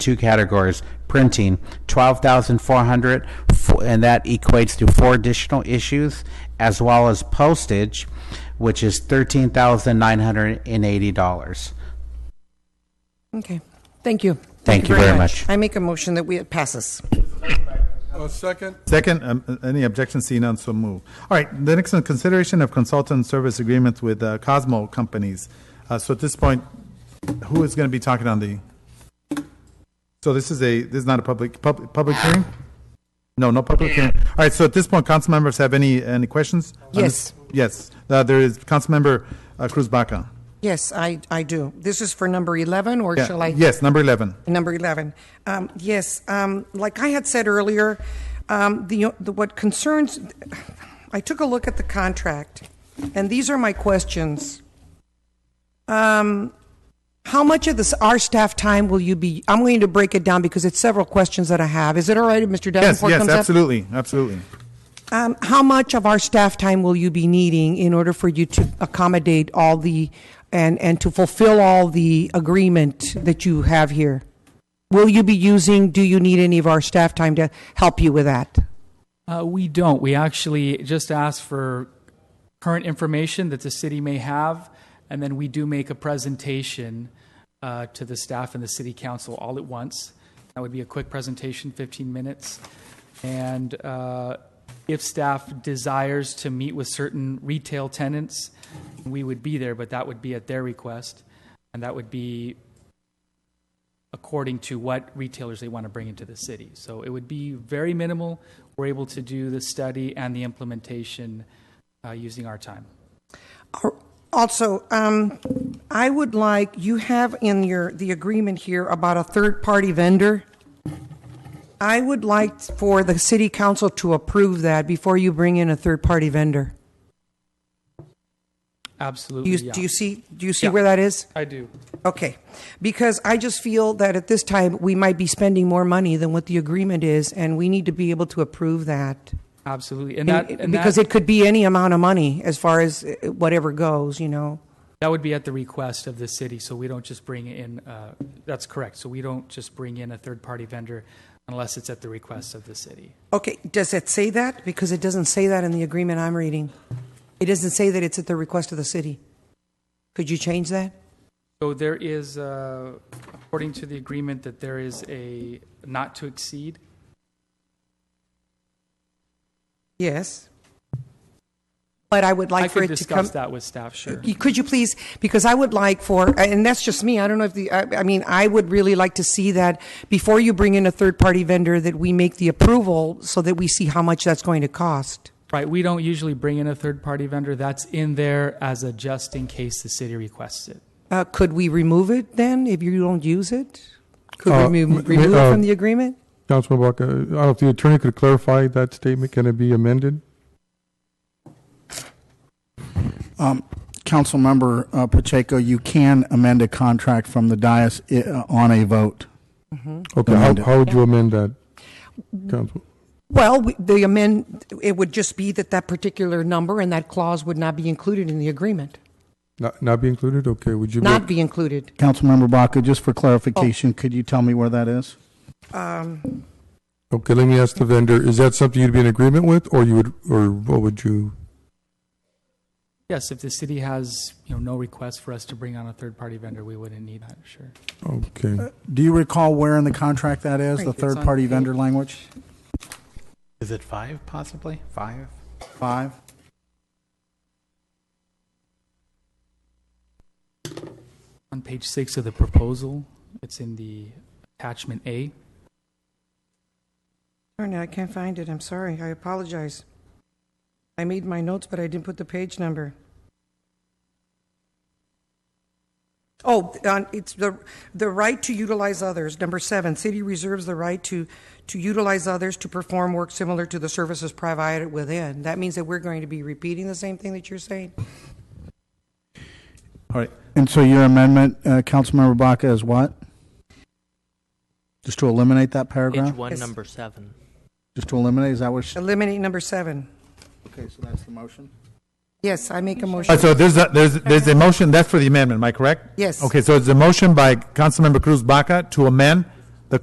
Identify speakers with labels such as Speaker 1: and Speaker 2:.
Speaker 1: two categories, printing, twelve thousand four hundred, and that equates to four additional issues, as well as postage, which is thirteen thousand nine hundred and eighty dollars.
Speaker 2: Okay, thank you.
Speaker 1: Thank you very much.
Speaker 2: I make a motion that we, pass this.
Speaker 3: A second?
Speaker 4: Second, um, any objections, seeing none, so move. All right, the next one, consideration of consultant service agreements with uh, Cosmo companies. Uh, So at this point, who is going to be talking on the? So this is a, this is not a public, public, public hearing? No, no public hearing. All right, so at this point, council members have any, any questions? on this? Yes, Uh, there is council member uh, Cruz Baca.
Speaker 2: Yes, I, I do. This is for number 11, or
Speaker 4: Yeah,
Speaker 2: shall I?
Speaker 4: Yes, number 11.
Speaker 2: Number 11. Um, Yes, um, like I had said earlier, um, the, the- what concerns, I took a look at the contract, and these are my questions. Um, How much of this, our staff time will you be, I'm going to break it down because it's several questions that I have. Is it all right if Mr.
Speaker 4: Yes,
Speaker 2: Davenport
Speaker 4: yes,
Speaker 2: comes up?
Speaker 4: absolutely, absolutely.
Speaker 2: Um, How much of our staff time will you be needing in order for you to accommodate all the, and, and to fulfill all the agreement that you have here? Will you be using, do you need any of our staff time to help you with that?
Speaker 5: Uh, we don't. We actually just ask for current information that the city may have, and then we do make a presentation uh, to the staff and the city council all at once. That would be a quick presentation, 15 minutes. And uh, if staff desires to meet with certain retail tenants, we would be there, but that would be at their request, and that would be according to what retailers they want to bring into the city. So it would be very minimal. We're able to do the study and the implementation uh, using our time.
Speaker 2: Also, um, I would like, you have in your, the agreement here about a third-party vendor. I would like for the city council to approve that before you bring in a third-party vendor. Do
Speaker 5: Absolutely,
Speaker 2: you,
Speaker 5: yeah.
Speaker 2: do you see, do you see
Speaker 5: Yeah.
Speaker 2: where that is?
Speaker 5: I do.
Speaker 2: Okay, because I just feel that at this time, we might be spending more money than what the agreement is, and we need to be able to approve that.
Speaker 5: Absolutely. And that, and
Speaker 2: Because
Speaker 5: that,
Speaker 2: it could be any amount of money as far as uh, whatever goes, you know?
Speaker 5: that would be at the request of the city. So we don't just bring in, uh, that's correct. So we don't just bring in a third party vendor unless it's at the request of the city.
Speaker 2: Okay, does it say that? Because it doesn't say that in the agreement I'm reading. It doesn't say that it's at the request of the city. Could you change that?
Speaker 5: So there is, uh, according to the agreement, that there is a not to exceed.
Speaker 2: Yes. But I would
Speaker 5: I
Speaker 2: like for
Speaker 5: could
Speaker 2: it to come.
Speaker 5: discuss that with staff, sure.
Speaker 2: You- Could you please, because I would like for, and that's just me, I don't know if the, I, I mean, I would really like to see that before you bring in a third-party vendor, that we make the approval so that we see how much that's going to cost.
Speaker 5: Right, we don't usually bring in a third-party vendor. That's in there as a just in case the city requests it.
Speaker 2: Uh, could we remove it then, if you don't use it? Could
Speaker 6: Uh,
Speaker 2: we
Speaker 6: m-
Speaker 2: remove,
Speaker 6: m-
Speaker 2: remove it
Speaker 6: uh,
Speaker 2: from the agreement?
Speaker 6: Councilman Baca, I don't know if the attorney could clarify that statement, can it be amended?
Speaker 7: Councilmember uh, Pacheco, you can amend a contract from the dais i- uh, on a vote.
Speaker 6: Okay, how,
Speaker 7: Amended.
Speaker 6: how would you amend that, Council?
Speaker 2: Well, we- the amend, it would just be that that particular number and that clause would not be included in the agreement,
Speaker 6: Not, not be included, okay, would you? go-
Speaker 2: not be included.
Speaker 7: Councilmember Baca, just for
Speaker 5: Oh.
Speaker 7: clarification, could you tell me where that is?
Speaker 2: Um,
Speaker 6: Okay, let me ask the vendor, is that something you'd be in agreement with, or you would, or what would you?
Speaker 5: Yes, if the city has, you know, no request for us to bring on a third-party vendor, we wouldn't need that, sure.
Speaker 6: Okay,
Speaker 7: Do you recall where in the contract that is, the
Speaker 5: It's on
Speaker 7: third-party
Speaker 5: page-
Speaker 7: vendor language?
Speaker 1: Is it five possibly? Five?
Speaker 7: Five?
Speaker 5: On page six of the proposal, it's in the attachment A.
Speaker 2: Darn it, I can't find it, I'm sorry, I apologize. I made my notes, but I didn't put the page number. Oh, on, it's the, the right to utilize others, number seven, city reserves the right to, to utilize others to perform work similar to the services provided within. That means that we're going to be repeating the same thing that you're saying?
Speaker 4: All right,
Speaker 7: And so your amendment, uh, Councilmember Baca, is what? Just to eliminate that
Speaker 8: Page
Speaker 7: paragraph?
Speaker 8: one,
Speaker 2: Yes.
Speaker 8: number seven.
Speaker 7: Just to eliminate, is that what?
Speaker 2: Eliminate number seven.
Speaker 7: Okay, so that's the motion.
Speaker 2: Yes, I make a
Speaker 4: All
Speaker 2: motion.
Speaker 4: right, so there's a, there's, there's a motion, that's for the amendment, am I correct?
Speaker 2: Yes.
Speaker 4: Okay, so it's a motion by Councilmember Cruz Baca to amend